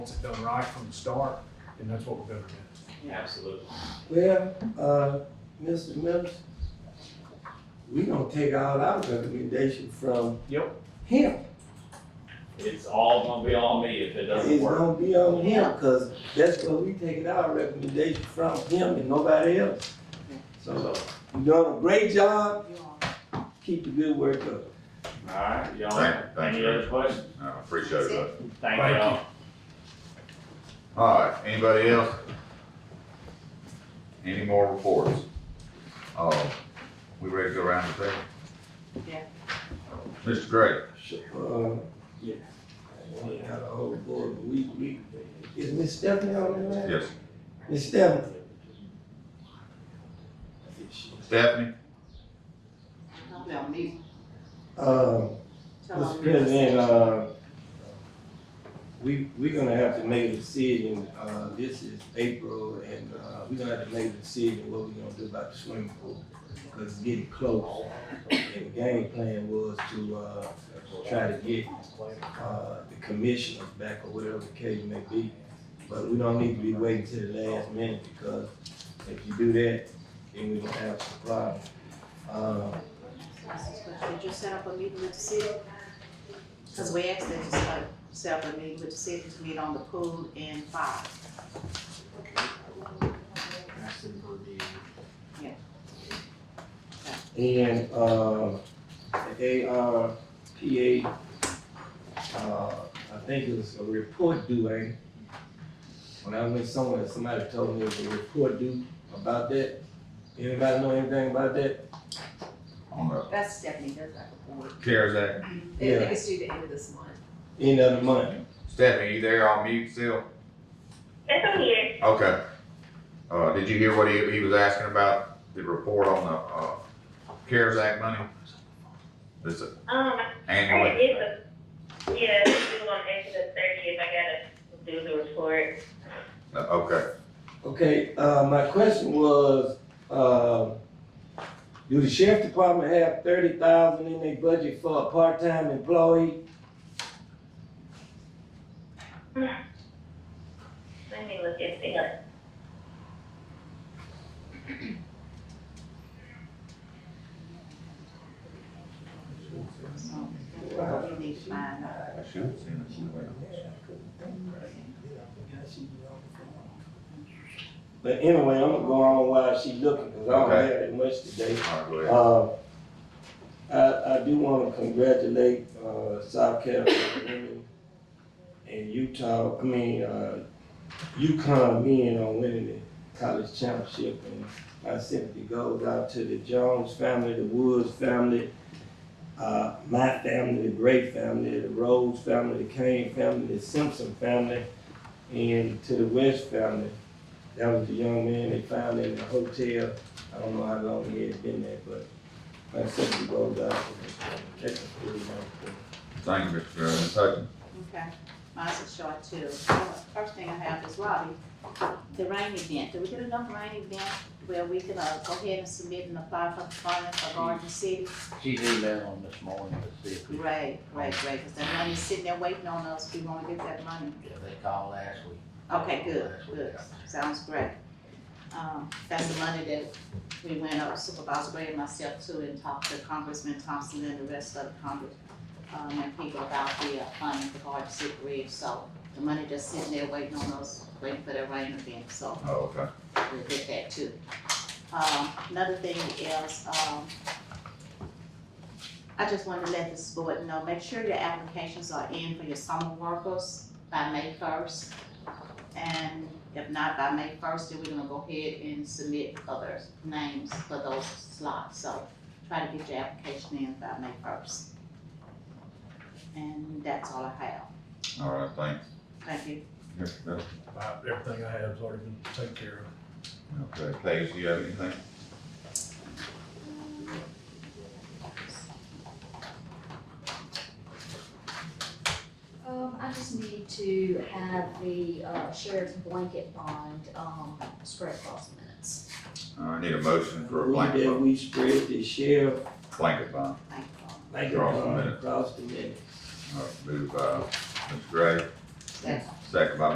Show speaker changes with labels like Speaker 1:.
Speaker 1: wants it done right from the start, and that's what we're gonna do.
Speaker 2: Absolutely.
Speaker 3: Well, uh, Mr. Mills, we gonna take all our recommendation from
Speaker 1: Yep.
Speaker 3: him.
Speaker 2: It's all gonna be on me if it doesn't
Speaker 3: It's
Speaker 2: work.
Speaker 3: gonna be on him, cause that's where we taking our recommendation from him and nobody else. So, uh,
Speaker 2: So,
Speaker 3: you doing a great job, keep the good work up.
Speaker 2: alright, y'all,
Speaker 4: Thank- thank
Speaker 2: any
Speaker 4: you.
Speaker 2: other questions?
Speaker 4: I appreciate that.
Speaker 2: Thank
Speaker 1: Thank
Speaker 2: y'all.
Speaker 4: All right, anybody else? Any more reports? Uh, we ready to go around the table?
Speaker 5: Yeah.
Speaker 4: Mr. Gray,
Speaker 3: Uh,
Speaker 2: Yeah.
Speaker 3: we got a whole board, but we, we, is Miss Stephanie on the line?
Speaker 4: yes,
Speaker 3: Miss Stephanie,
Speaker 4: Stephanie,
Speaker 5: Tell me,
Speaker 3: uh,
Speaker 5: tell
Speaker 3: Mr.
Speaker 5: me.
Speaker 3: President, uh, we, we're gonna have to make a decision, uh, this is April, and, uh, we're gonna have to make a decision what we're gonna do about the swimming pool. Cause it's getting close, and the game plan was to, uh, try to get, uh, the commissioners back or whatever the case may be. But we don't need to be waiting till the last minute, because if you do that, then we're gonna have some problems. Uh,
Speaker 5: Did you set up a meeting with the city? Cause we asked them to set up, set up a meeting with the city to meet on the pool and fire.
Speaker 3: And, uh, the ARPA, uh, I think it was a report due, ain't it? When I went somewhere, somebody told me it was a report due about that. Anybody know anything about that?
Speaker 4: on the
Speaker 6: That's Stephanie, that's like a board.
Speaker 4: CARES Act.
Speaker 6: They
Speaker 3: Yeah.
Speaker 6: think it's due the end of this month.
Speaker 3: End of the month.
Speaker 4: Stephanie, you there on mute still?
Speaker 7: It's on here.
Speaker 4: Okay. Uh, did you hear what he, he was asking about, the report on the, uh, CARES Act money? This uh,
Speaker 7: Um,
Speaker 4: annual,
Speaker 7: it's a, yeah, it's due on April the thirtieth. I gotta do the report.
Speaker 4: Uh, okay,
Speaker 3: Okay, uh, my question was, uh, do the sheriff department have thirty thousand in their budget for a part-time employee?
Speaker 7: Let me look at it up.
Speaker 5: So, that's what we need to find out.
Speaker 3: But anyway, I'm gonna go on while she looking, cause I don't
Speaker 4: Okay.
Speaker 3: have that much today.
Speaker 4: all right, go ahead.
Speaker 3: Uh, I, I do want to congratulate, uh, South Carolina women and Utah, I mean, uh, UConn men on winning the college championship. And my sympathy goes out to the Jones family, the Woods family, uh, my family, the Gray family, the Rose family, the Kane family, the Simpson family, and to the West family. That was the young man they found in the hotel I don't know how long he had been there, but my sister goes out to check the food.
Speaker 4: Thank you, Mr. Gray, Ms. Hutchins.
Speaker 5: Okay, mine's a short too. Well, First thing I have is Robbie, the rain event. Did we get enough rain event where we can, uh, go ahead and submit and apply for the funding for Garden City?
Speaker 8: She's emailing this morning to see if we, yeah,
Speaker 5: Great, great, great, cause that money's sitting there waiting on us. We wanna get that money.
Speaker 8: they called last week.
Speaker 5: Okay, good,
Speaker 8: That's what
Speaker 5: good,
Speaker 8: got.
Speaker 5: sounds great. Um, that's the money that we went up Supervisor Gray and myself to and talked to Congressman Thompson and the rest of the Congress, um, and people about the uh, funding for hard to see bridge, so the money just sitting there waiting on us, waiting for that rain event, so
Speaker 4: Oh, okay.
Speaker 5: we'll get that too. Um, another thing is, um, I just wanted to let this board know, make sure your applications are in for your summer workers by May first. And if not by May first, then we're gonna go ahead and submit other names for those slots, so try to get your application in by May first. And that's all I have,
Speaker 4: All right, thanks.
Speaker 5: thank you.
Speaker 4: Mr. Miller.
Speaker 1: About Everything I have is already been taken care of.
Speaker 4: Okay, Paige, do you have anything?
Speaker 9: Um, I just need to have the, uh, sheriff's blanket bond, um, spread across the minutes.
Speaker 4: Uh, I need a motion for a
Speaker 3: We, that
Speaker 4: blanket,
Speaker 3: we spread the sheriff
Speaker 4: blanket bond.
Speaker 5: Thank you.
Speaker 3: like a
Speaker 4: Across the
Speaker 3: dog
Speaker 4: minute.
Speaker 3: across the minute.
Speaker 4: All right, Moved by Mr. Gray,
Speaker 5: Second.
Speaker 4: second by